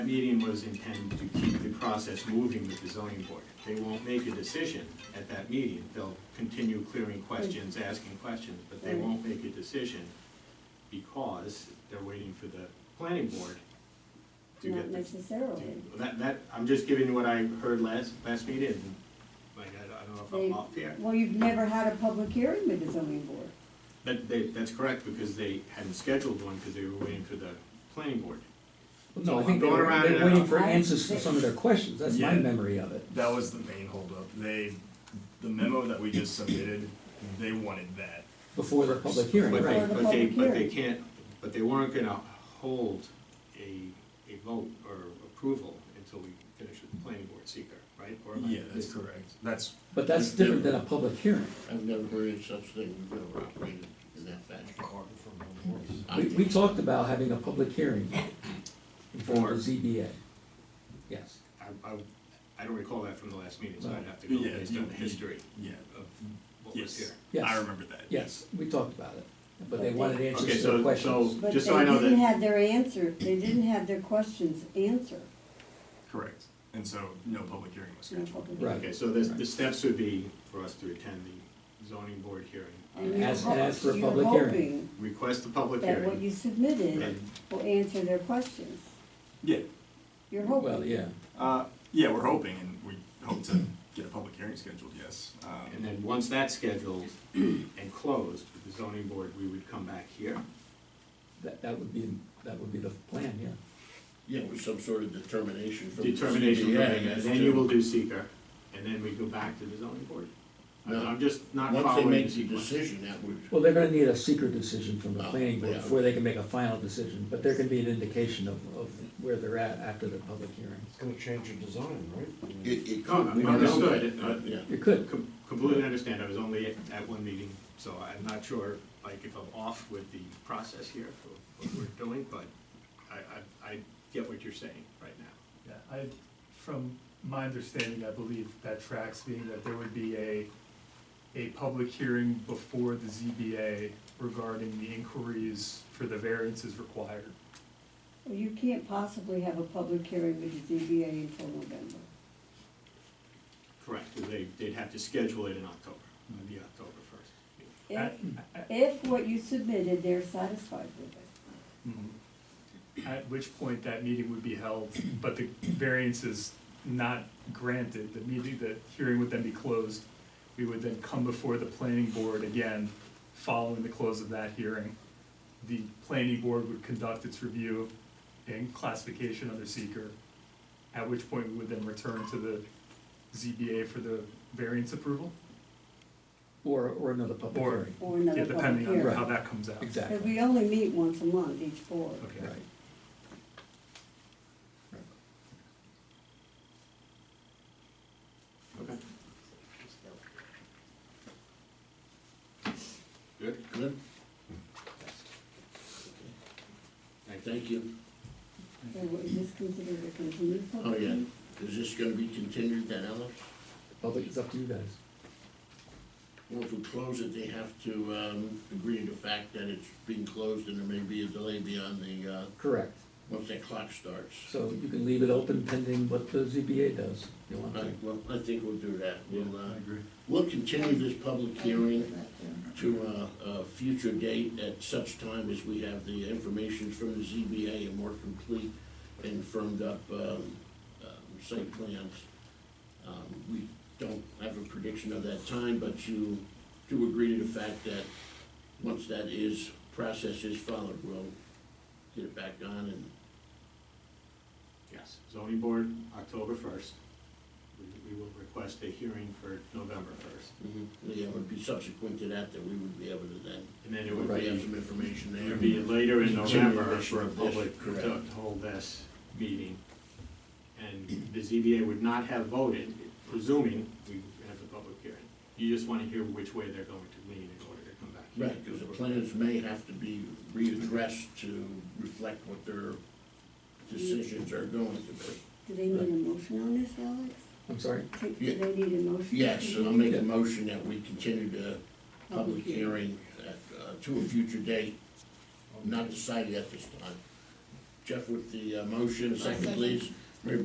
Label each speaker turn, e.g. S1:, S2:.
S1: That meeting was intended to keep the process moving with the zoning board. They won't make a decision at that meeting. They'll continue clearing questions, asking questions, but they won't make a decision because they're waiting for the planning board to
S2: Not
S1: get the
S2: necessarily.
S1: That, that, I'm just giving you what I heard last, last meeting, and, like, I I don't know if
S2: They-
S1: I'm off here.
S2: Well, you've never had a public hearing with the zoning board.
S1: That, they, that's correct, because they hadn't scheduled one, because they were waiting for the planning board.
S3: No, I think they
S1: Going
S3: were,
S1: around
S3: they're
S1: and
S3: waiting
S1: out.
S3: for
S2: I-
S3: answers to some of their questions, that's my
S4: Yeah.
S3: memory of it.
S4: That was the main holdup. They, the memo that we just submitted, they wanted that.
S3: Before the public hearing,
S1: But they,
S3: right?
S2: Before the
S1: but they,
S2: public
S1: but they
S2: hearing.
S1: can't, but they weren't gonna hold a, a vote or approval until we finish with the planning board seeker, right? Or am I-
S4: correct. That's,
S3: But that's different than a public hearing.
S5: I've never heard of such thing, we've never operated in that fashion. I
S3: We,
S5: think
S3: we talked about having a public hearing in front of the ZBA. Yes,
S1: I, I, I don't recall that from the last meeting, so I'd have to go
S4: yeah.
S1: based on the history
S4: Yeah,
S1: of what was
S4: yes.
S1: here.
S4: I
S3: yes,
S4: remember that.
S3: yes, we talked about it, but they
S2: Okay.
S3: wanted
S1: Okay,
S3: answers to
S1: so-
S3: their questions.
S1: so-
S2: But they
S1: Just I know
S2: didn't
S1: that-
S2: have their answer, they didn't have their questions answered.
S4: Correct. And so no public hearing was
S2: No
S4: scheduled.
S2: public
S3: Right.
S2: hearing.
S1: Okay, so the, the steps would be for us to attend the zoning board hearing,
S2: And you're
S3: Ask-
S2: hop-
S3: ask for a
S2: you're
S3: public hearing.
S1: request a public
S2: hoping Mm-hmm. That what
S1: hearing,
S2: you submitted
S1: and
S2: will answer their questions.
S4: Yeah,
S2: You're
S3: Well,
S2: hoping.
S3: yeah,
S4: uh, yeah, we're hoping and we hope to get a public hearing scheduled, yes. Um,
S1: And then once that's scheduled and closed with the zoning board, we would come back here.
S3: that, that would be, that would be the plan, yeah.
S5: Yeah, with some sort of determination from. the
S1: Determination from
S5: CBA
S1: there,
S5: as
S1: and then
S5: to-
S1: you will do seeker, and then we go back to the zoning board. I'm-
S5: No.
S1: I'm just not
S5: Once they
S1: following the
S5: make the
S1: sequence.
S5: decision, that would,
S3: Well, they're gonna need a secret decision from the
S5: Oh,
S3: planning board
S5: yeah.
S3: before they can make a final decision, but there can be an indication of, of where they're at after the public hearing.
S6: It's gonna change the design, right?
S5: it, it
S1: No,
S5: could. we don't know
S1: understood. uh,
S5: that, but, Yeah.
S3: You could,
S1: Com- Completely understand, I was only at, at one meeting, so I'm not sure, like, if I'm off with the process here for what we're doing, but I, I, I get what you're saying right now.
S7: Yeah, I, from my understanding, I believe that tracks being that there would be a, a public hearing before the ZBA regarding the inquiries for the variances required.
S2: Well, You can't possibly have a public hearing with the ZBA until November.
S1: Correct, 'cause they, they'd have to schedule it in October, it'd be October first.
S2: If,
S7: I- I-
S2: if what you submitted, they're satisfied with it.
S7: Mm-hmm. At which point that meeting would be held, but the variance is not granted, the meeting, the hearing would then be closed. We would then come before the planning board again, following the close of that hearing. The planning board would conduct its review and classification of the seeker, at which point we would then return to the ZBA for the variance approval,
S3: or, or another public
S7: Or-
S3: hearing.
S2: Or
S7: yeah,
S2: another public
S7: depending on how
S2: hearing.
S3: Right.
S7: that comes out.
S3: Exactly.
S2: Because we only meet once a month, each board.
S7: Okay.
S3: Right.
S1: Okay.
S5: Good, good. Thank you.
S2: So is this considered a continued
S5: Oh,
S2: public
S5: yeah.
S2: hearing?
S5: Is this gonna be continued then, Alex?
S3: Public, it's up to you guys.
S5: Well, if we close it, they have to, um, agree to the fact that it's being closed and there may be a delay beyond the, uh,
S3: Correct.
S5: once that clock starts.
S3: So you can leave it open pending what the ZBA does. You want
S5: Right,
S3: to?
S5: well, I think we'll do that. We'll, uh, we'll continue this public hearing to a, a future date at such time as we have the information from the ZBA and more complete and firmed up, um, um, site plans. Um, we don't have a prediction of that time, but you do agree to the fact that once that is, process is followed, we'll get it back on and
S1: Yes, zoning board, October first. We will request a hearing for November first,
S5: Yeah, it would be subsequent to that that we would be able to then,
S1: and then it would
S5: if we have
S1: be,
S5: some information
S1: it
S5: there.
S1: would be later in November
S5: Continuation
S1: for a
S5: of this,
S1: public,
S5: correct.
S1: to hold this meeting. And the ZBA would not have voted, presuming we have the public hearing. You just wanna hear which way they're going to lean in order to come back. here.
S5: Right, because the plans may have to be readdressed to reflect what their decisions are going to
S2: Do they need a motion on this, Alex?
S3: I'm sorry?
S2: Do do they need a motion?
S5: be. Yes, so I'll make a motion that we continue the public hearing at, uh, to a future date, not decided at this time, Jeff with the uh, motion, second please.